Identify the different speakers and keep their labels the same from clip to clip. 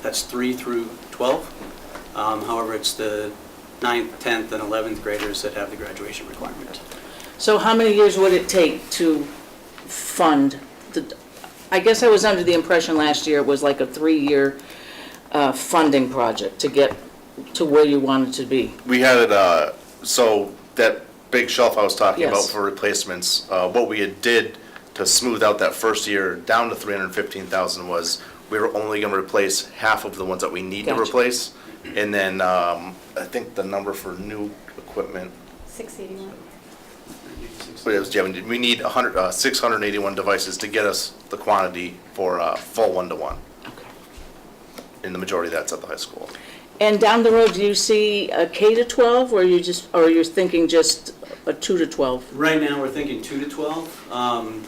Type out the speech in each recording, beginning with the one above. Speaker 1: That's 3 through 12. Um, However, it's the 9th, 10th, and 11th graders that have the graduation requirement.
Speaker 2: So how many years would it take to fund the, I guess I was under the impression last year it was like a three-year uh, funding project to get to where you wanted to be.
Speaker 3: We had it, uh, so that big shelf I was talking about
Speaker 2: Yes.
Speaker 3: for replacements, uh, what we had did to smooth out that first year down to three hundred and fifteen thousand was, we were only gonna replace half of the ones that we need to
Speaker 2: Gotcha.
Speaker 3: replace. And then, um, I think the number for new equipment,
Speaker 4: 681.
Speaker 3: but it was, Oh, yeah, we need a hundred, uh, six hundred and eighty-one devices to get us the quantity for, uh, full one-to-one. And the majority of that's at the high school.
Speaker 2: And down the road, do you see a K to 12, or you just, or you're thinking just a two to 12?
Speaker 1: Right now, we're thinking 2 to 12. Um,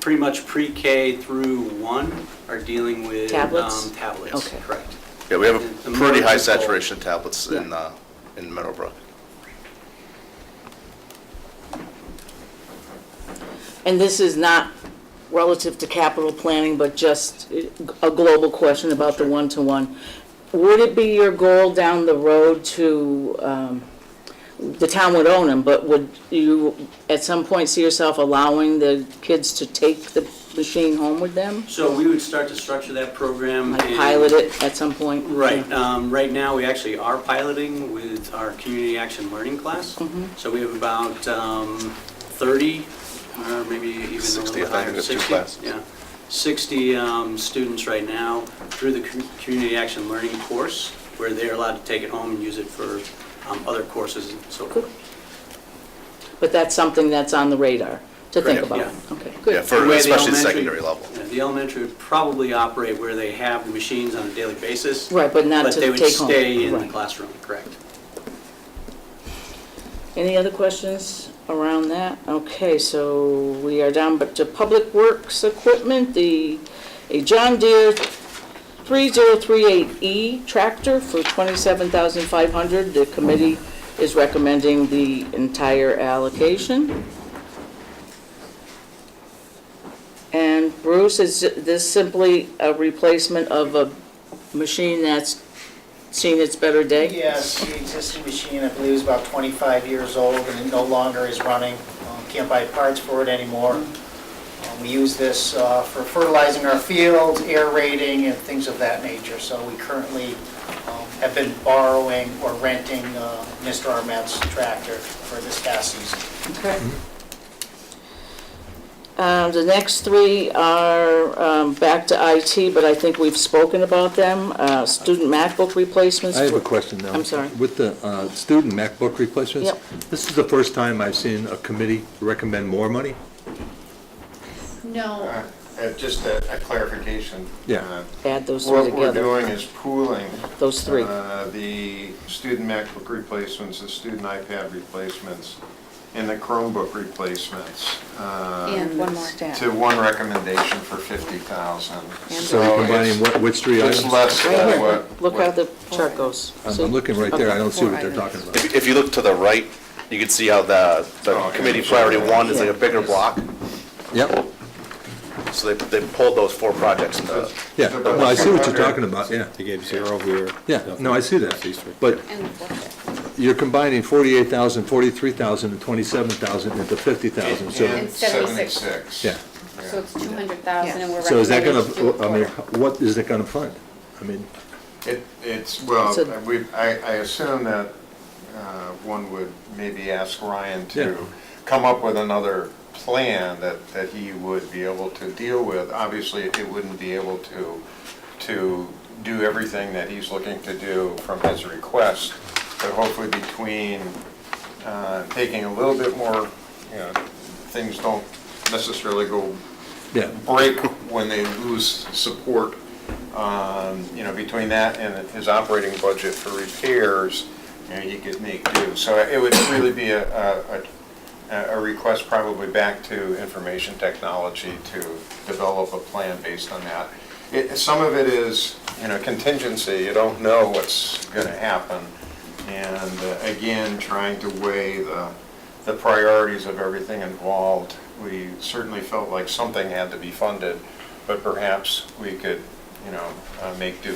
Speaker 1: Pretty much pre-K through 1 are dealing with.
Speaker 2: Tablets?
Speaker 1: um, Tablets,
Speaker 2: Okay.
Speaker 1: correct.
Speaker 3: Yeah, we have
Speaker 1: The-
Speaker 3: a
Speaker 1: the
Speaker 3: pretty high
Speaker 1: margin's low.
Speaker 3: saturation of tablets in, uh, in Meadowbrook.
Speaker 2: And this is not relative to capital planning, but just a global question about the one-to-one. Would it be your goal down the road to, um, the town would own them, but would you at some point see yourself allowing the kids to take the machine home with them?
Speaker 1: So we would start to structure that program.
Speaker 2: Like
Speaker 1: in-
Speaker 2: pilot it at some point?
Speaker 1: Mm. Right, um, right now, we actually are piloting with our community action learning class.
Speaker 2: Mm-hmm.
Speaker 1: So we have about, um, thirty, or maybe even a
Speaker 3: 60, I
Speaker 1: little
Speaker 3: think,
Speaker 1: higher,
Speaker 3: there's two
Speaker 1: sixty.
Speaker 3: classes.
Speaker 1: Yeah, sixty, um, students right now through the com- community action learning course, where they're allowed to take it home and use it for, um, other courses and so forth.
Speaker 2: But that's something that's on the radar to think
Speaker 3: Correct,
Speaker 2: about?
Speaker 1: yeah.
Speaker 2: Okay,
Speaker 3: Yeah,
Speaker 2: good.
Speaker 3: for,
Speaker 1: way the
Speaker 3: especially the
Speaker 1: elementary-
Speaker 3: secondary level.
Speaker 1: yeah, The elementary would probably operate where they have the machines on a daily basis.
Speaker 2: Right, but not
Speaker 1: But they
Speaker 2: to take home?
Speaker 1: would stay in the
Speaker 2: Right.
Speaker 1: classroom, correct.
Speaker 2: Any other questions around that? Okay, so we are down but to Public Works Equipment, the, a John Deere 3038E E tractor for 27500 The committee is recommending the entire allocation. And Bruce, is this simply a replacement of a machine that's seen its better day?
Speaker 5: Yes, the existing machine, I believe, is about 25 years old, and it no longer is running. Um, Can't buy parts for it anymore. Um, We use this uh, for fertilizing our fields, aerating, and things of that nature. So we currently um, have been borrowing or renting uh, Mr. Armet's tractor for this past season.
Speaker 2: Okay. Um, The next three are um, back to IT, but I think we've spoken about them. Uh, Student MacBook replacements.
Speaker 6: I have a question now.
Speaker 2: I'm sorry.
Speaker 6: With the uh, student MacBook replacements?
Speaker 2: Yep.
Speaker 6: This is the first time I've seen a committee recommend more money?
Speaker 4: No,
Speaker 7: Uh, uh, Just a a clarification.
Speaker 6: Yeah.
Speaker 7: Uh,
Speaker 2: Add those three
Speaker 7: What we're
Speaker 2: together,
Speaker 7: doing is pooling
Speaker 2: those three.
Speaker 7: uh, the student MacBook replacements, the student iPad replacements, and the Chromebook replacements uh,
Speaker 4: and one more.
Speaker 7: to one recommendation for 50,000.
Speaker 6: So you're combining
Speaker 7: it's-
Speaker 6: what, which three
Speaker 7: It's
Speaker 6: items?
Speaker 7: less
Speaker 2: Right
Speaker 7: than
Speaker 2: here.
Speaker 7: uh, what.
Speaker 2: Look
Speaker 7: what-
Speaker 2: how the chart goes.
Speaker 6: I'm
Speaker 2: See?
Speaker 6: I'm looking right there, I don't see
Speaker 4: Four
Speaker 6: what they're talking
Speaker 4: items.
Speaker 6: about.
Speaker 3: If, if you look to the right, you can see how the,
Speaker 7: Oh,
Speaker 3: the
Speaker 7: okay.
Speaker 3: committee priority one is like a bigger block.
Speaker 6: Yep,
Speaker 3: So they, they pulled those four projects into,
Speaker 6: yeah,
Speaker 7: They're
Speaker 6: no, I see what you're
Speaker 7: both-
Speaker 6: talking about, yeah,
Speaker 8: They gave zero here.
Speaker 6: yeah, no, I see
Speaker 8: These
Speaker 6: that.
Speaker 8: three.
Speaker 6: But
Speaker 4: And the fourth.
Speaker 6: you're combining 48,000, 43,000, and 27,000 into 50,000, so,
Speaker 7: And
Speaker 4: And 76.
Speaker 7: 76.
Speaker 6: yeah.
Speaker 4: So it's 200,000 and we're recommending.
Speaker 6: So is that gonna,
Speaker 4: to do a
Speaker 6: I mean,
Speaker 4: quarter.
Speaker 6: what is it gonna fund? I mean,
Speaker 7: It, it's, well,
Speaker 2: It's a-
Speaker 7: we, I, I assume that uh, one would maybe ask Ryan
Speaker 6: Yeah.
Speaker 7: to come up with another plan that, that he would be able to deal with. Obviously, it wouldn't be able to, to do everything that he's looking to do from his request, but hopefully between uh, taking a little bit more, you know, things don't necessarily go
Speaker 6: yeah,
Speaker 7: break when they lose support, um, you know, between that and his operating budget for repairs, you know, he could make do. So it would really be a, a, a- a request probably back to information technology to develop a plan based on that. It, some of it is, you know, contingency, you don't know what's gonna happen. And uh, again, trying to weigh the, the priorities of everything involved. We certainly felt like something had to be funded, but perhaps we could, you know, uh, make do